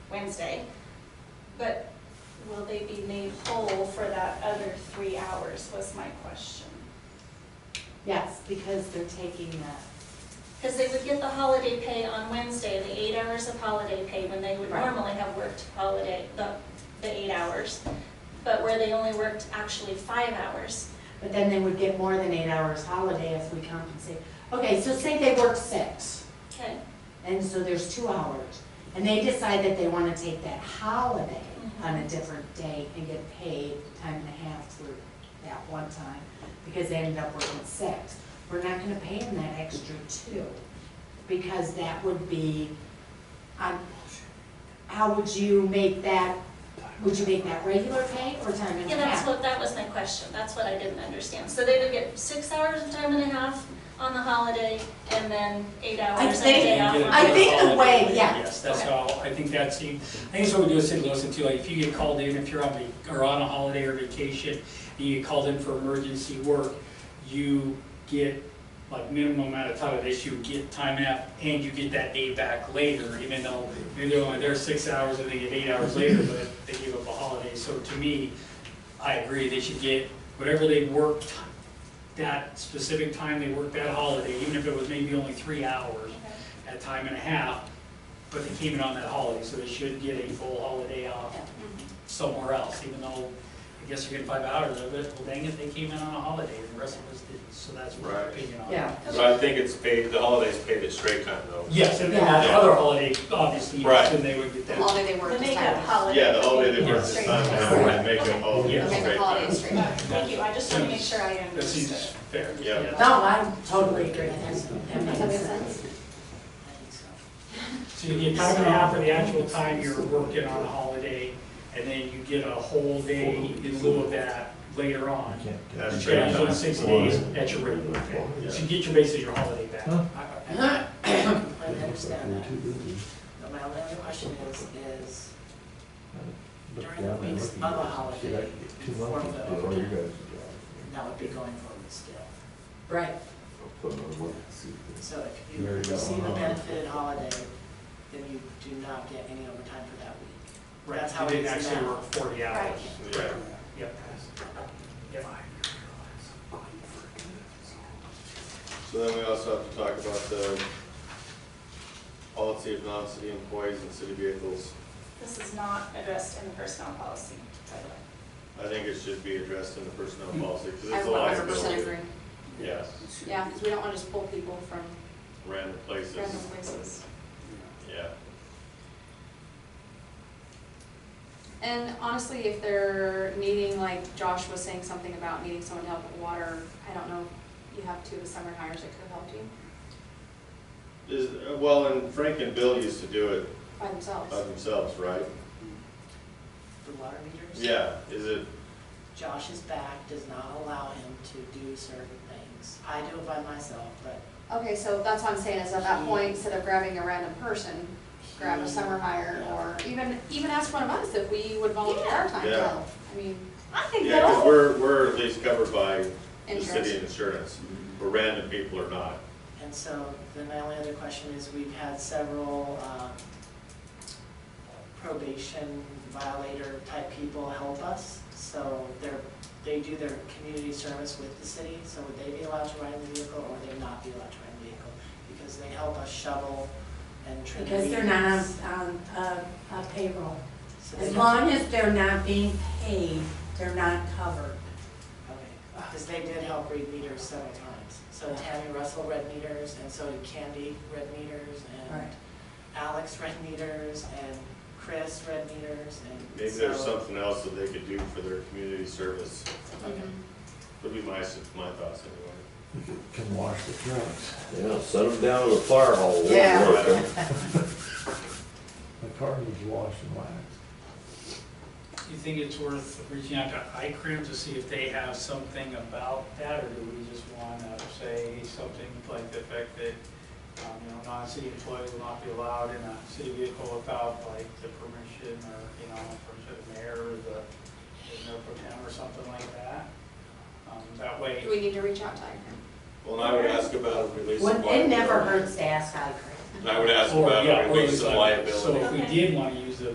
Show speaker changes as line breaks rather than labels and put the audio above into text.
Wednesday, but will they be made whole for that other three hours was my question.
Yes, because they're taking the,
Because they would get the holiday pay on Wednesday, the eight hours of holiday pay, when they would
Right.
normally have worked holiday, the, the eight hours. But where they only worked actually five hours.
but then they would get more than eight hours holiday if we compensate. Okay, so say they work six,
Okay.
and so there's two hours, and they decide that they wanna take that holiday
Mhm.
on a different day and get paid time and a half through that one time, because they ended up working six. We're not gonna pay them that extra two, because that would be, um, how would you make that, would you make that regular pay or time and a half?
Yeah, that's what, that was my question, that's what I didn't understand. So they would get six hours of time and a half on the holiday, and then eight hours and a
think-
day off.
get
on
I
the-
think the way-
Yes,
yeah.
Yes, that's
Okay.
how, I think that's, the- I think that's what we do at City Lawson too, like, if you get called in, if you're on, vac- or on a holiday or vacation, and you get called in for emergency work, you get, like, minimum amount of time, that you get time and a half, and you get that day back later, even though maybe they're only there six hours and they get eight hours later, but they give up a holiday, so to me, I agree, they should get whatever they worked, that specific time they worked that holiday, even if it was maybe only three hours,
Okay.
at time and a half, but they came in on that holiday, so they should get a full holiday off somewhere else, even though I guess you're getting five hours of it, well dang it, they came in on a holiday, and the rest of us didn't, so that's my
Right.
opinion on it.
Yeah.
So I think it's paid, the holiday's paid at straight time though.
Yes, and then that
Yeah.
other holiday, obviously,
Right.
then they would get
The
that.
holiday they work
The
is
makeup
Saturday.
holiday.
Yeah, the holiday they work this
Straight.
time, and they make up all
Yeah.
the
The
straight
makeup holiday is
time.
straight.
Thank you, I just want to make sure I
That seems
understood.
fair.
Yeah.
yes.
No, I totally agree, that's, that makes sense.
So you get time and a half for the actual time you're working on a holiday, and then you get a whole day in lieu of that later on.
That's
You
straight
change on
time.
six days at your regular pay, so you get your basically your holiday back.
Huh?
I- I-
I understand that. But my only question is, is during the weeks of a holiday, form of overtime, that would be going forward still.
Right.
So if you
There you go. Uh-huh.
receive a benefited holiday, then you do not get any overtime for that week.
Right,
That's how
you
it
didn't
is
actually
now.
work forty
Right.
hours.
Yeah.
Yep. Yep.
So then we also have to talk about the policy of non-city employees and city vehicles.
This is not addressed in the personnel policy, by the way.
I think it should be addressed in the personnel policy, because
Mm-hmm. I
it's a
one hundred
liability.
percent agree.
Yeah,
Yeah, because we don't want to just pull people from
random
random
places,
places.
yeah.
And honestly, if they're needing, like Josh was saying something about needing someone to help with water, I don't know, if you have two of the summer hires that could help you
Is, well, and Frank and Bill used to do it
by themselves.
by themselves, right?
The water meters?
Yeah, is it,
Josh's back does not allow him to do certain things. I do it by myself, but
Okay, so that's what I'm saying, is at that point, instead of grabbing a random person, grab a summer hire, or even, even ask one of us if we would volunteer our time to
Yeah.
help. I mean,
I think
yeah,
that
because we're, we're at least covered by the
Insurance.
city insurance, but random people are not.
And so then my only other question is, we've had several um, probation violator type people help us. So they're, they do their community service with the city, so would they be allowed to ride in the vehicle or would they not be allowed to ride in the vehicle? Because they help us shovel and trim
Because they're not
weeds.
on, on um, a payroll.
So they
As
don't-
long as they're not being paid, they're not covered.
Okay, because they did help read meters several times. So Tammy Russell read meters, and so did Candy read meters, and
Right.
Alex read meters, and Chris read meters, and.
Maybe there's
so-
something else that they could do for their community service,
Okay.
would be my, s- my thoughts anyway.
Can wash the trucks.
Yeah, set them down in a fire hole.
Yeah.
The car needs washed and waxed.
Do you think it's worth reaching out to ICRIM to see if they have something about that, or do we just want to say something like the fact that, um, you know, non-city employees will not be allowed in a city vehicle without like the permission or, you know, permission of the mayor or the, the mayor pro tem or something like that? Um, That way.
do we need to reach out to Iker?
Well, and I would ask about a release
When-
of
It
liability.
never hurts to ask ICRIM.
And I would ask
Or,
about
yeah,
a
or
release
it's
of
like- So
liability.
if we
Okay.
did want to